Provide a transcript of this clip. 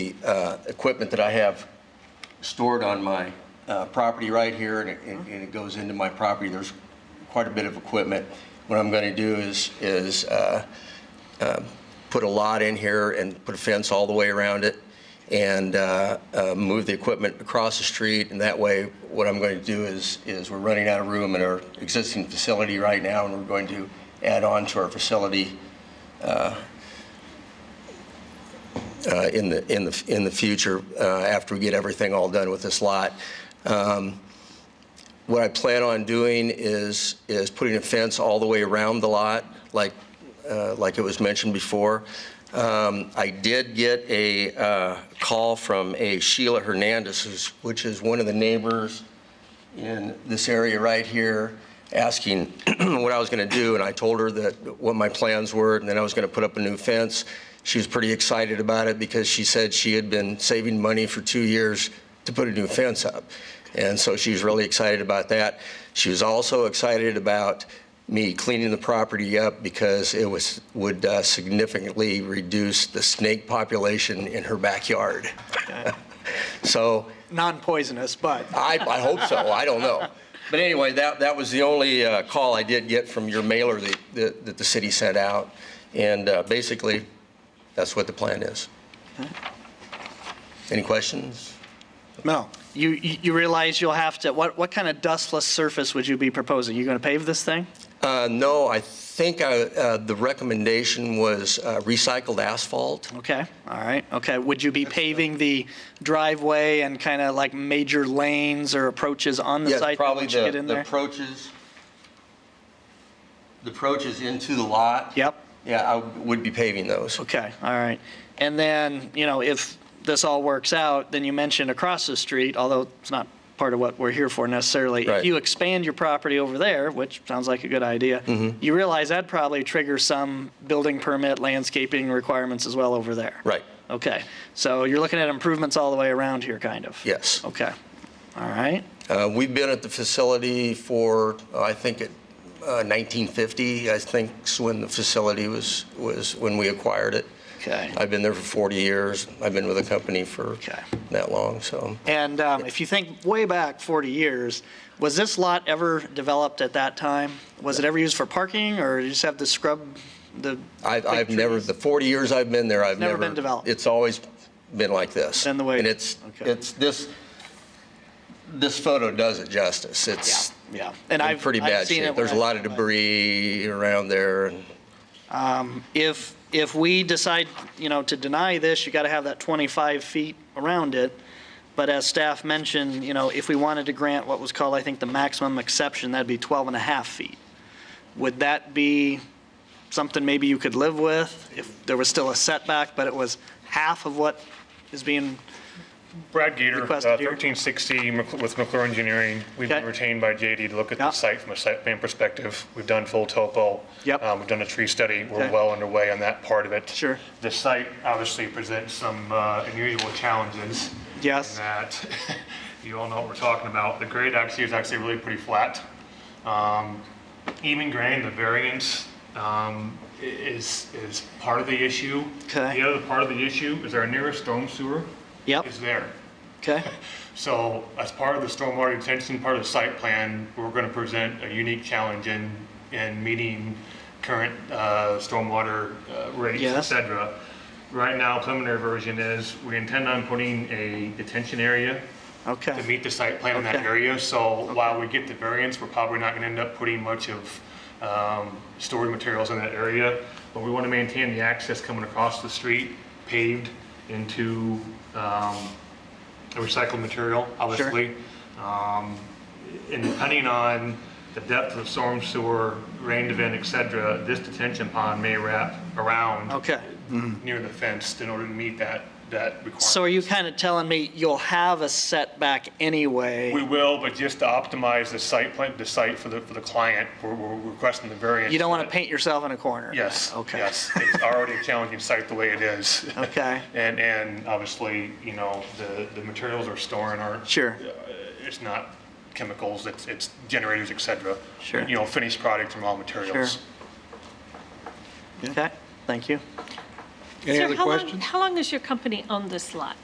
uh, equipment that I have stored on my uh, property right here, and it- and and it goes into my property. There's quite a bit of equipment. What I'm going to do is, is uh, uh, put a lot in here and put a fence all the way around it and uh, uh, move the equipment across the street. And that way, what I'm going to do is, is we're running out of room in our existing facility right now, and we're going to add on to our facility uh, in the, in the, in the future, uh, after we get everything all done with this lot. Um, What I plan on doing is, is putting a fence all the way around the lot, like, uh, like it was mentioned before. Um, I did get a uh, call from a Sheila Hernandez, who's, which is one of the neighbors in this area right here asking what I was going to do, and I told her that, what my plans were, and then I was going to put up a new fence. She was pretty excited about it because she said she had been saving money for two years to put a new fence up. And so she was really excited about that. She was also excited about me cleaning the property up because it was, would uh, significantly reduce the snake population in her backyard. So non-poisonous, but I, I hope so. I don't know. But anyway, that, that was the only uh, call I did get from your mailer that, that that the city sent out. And uh, basically, that's what the plan is. Any questions? Mel, you, you you realize you'll have to, what, what kind of dustless surface would you be proposing? You going to pave this thing? Uh, No, I think I- uh, the recommendation was uh, recycled asphalt. Okay, all right, okay. Would you be paving the driveway and kind of like major lanes or approaches on the Yeah, site probably once you the get in the there? approaches, the approaches into the lot. Yep, Yeah, I would be paving those. okay, all right. And then, you know, if this all works out, then you mentioned across the street, although it's not part of what we're here for necessarily. Right. If you expand your property over there, which sounds like a good idea, Mm-hmm. you realize that'd probably trigger some building permit, landscaping requirements as well over there. Right. Okay, so you're looking at improvements all the way around here, kind of? Yes. Okay, all right, Uh, We've been at the facility for, uh, I think, it, uh, 1950, I think, is when the facility was, was when we acquired it. okay. I've been there for 40 years. I've been with the company for Okay. that long, so. And um, if you think way back 40 years, was this lot ever developed at that time? Was it ever used for parking, or did you just have the scrub, the? I've, big I've never, trees? the 40 years I've been there, I've never never. been developed. It's always been like this. Been the way- And it's, okay. it's, this, this photo does it justice. It's Yeah, and in I've. pretty I've bad seen it shape. when There's a I- lot of debris around there, and Um, If, if we decide, you know, to deny this, you got to have that 25 feet around it. But as staff mentioned, you know, if we wanted to grant what was called, I think, the maximum exception, that'd be 12 and a half feet. Would that be something maybe you could live with if there was still a setback, but it was half of what is being, Brad Gator, uh, Requested here. 1360 Mc- with McClure Engineering. We've been Okay. retained by JD to look at Yeah. the site from a site plan perspective. We've done full topo. Yep. Um, We've done a tree study. We're Okay. well underway on that part of it. Sure. The site obviously presents some uh, unusual challenges. Yes. In that, you all know what we're talking about. The grade actually is actually really pretty flat. Um, Even grain, the variance um, i- is, is part of the issue. Okay. The other part of the issue is our nearest storm sewer yep, is there. okay, So as part of the stormwater detention, part of the site plan, we're going to present a unique challenge in, in meeting current uh, stormwater uh, rates, et Yes. cetera. Right now, preliminary version is, we intend on putting a detention area to okay. meet the site plan in that Okay. area. So while we get the variance, we're probably not going to end up putting much of um, stored materials in that area. But we want to maintain the access coming across the street paved into um, the recycled material, obviously. Um, And depending on the depth of storm sewer, rain event, et cetera, this detention pond may wrap around Okay. near the fence in order to meet that, that requirement. So are you kind of telling me you'll have a setback We anyway? will, but just to optimize the site plan, the site for the, for the client, we're, we're requesting the variance. You don't want to paint yourself in a corner? Yes, Okay. yes. It's already a challenging site the way it is. Okay. And, and obviously, you know, the, the materials are storing aren't. Sure. It's not chemicals, it's, it's generators, et cetera. Sure. You know, finished product and raw materials. Sure. Okay, thank you. Sir, Any other how long- questions? How long has your company owned this lot?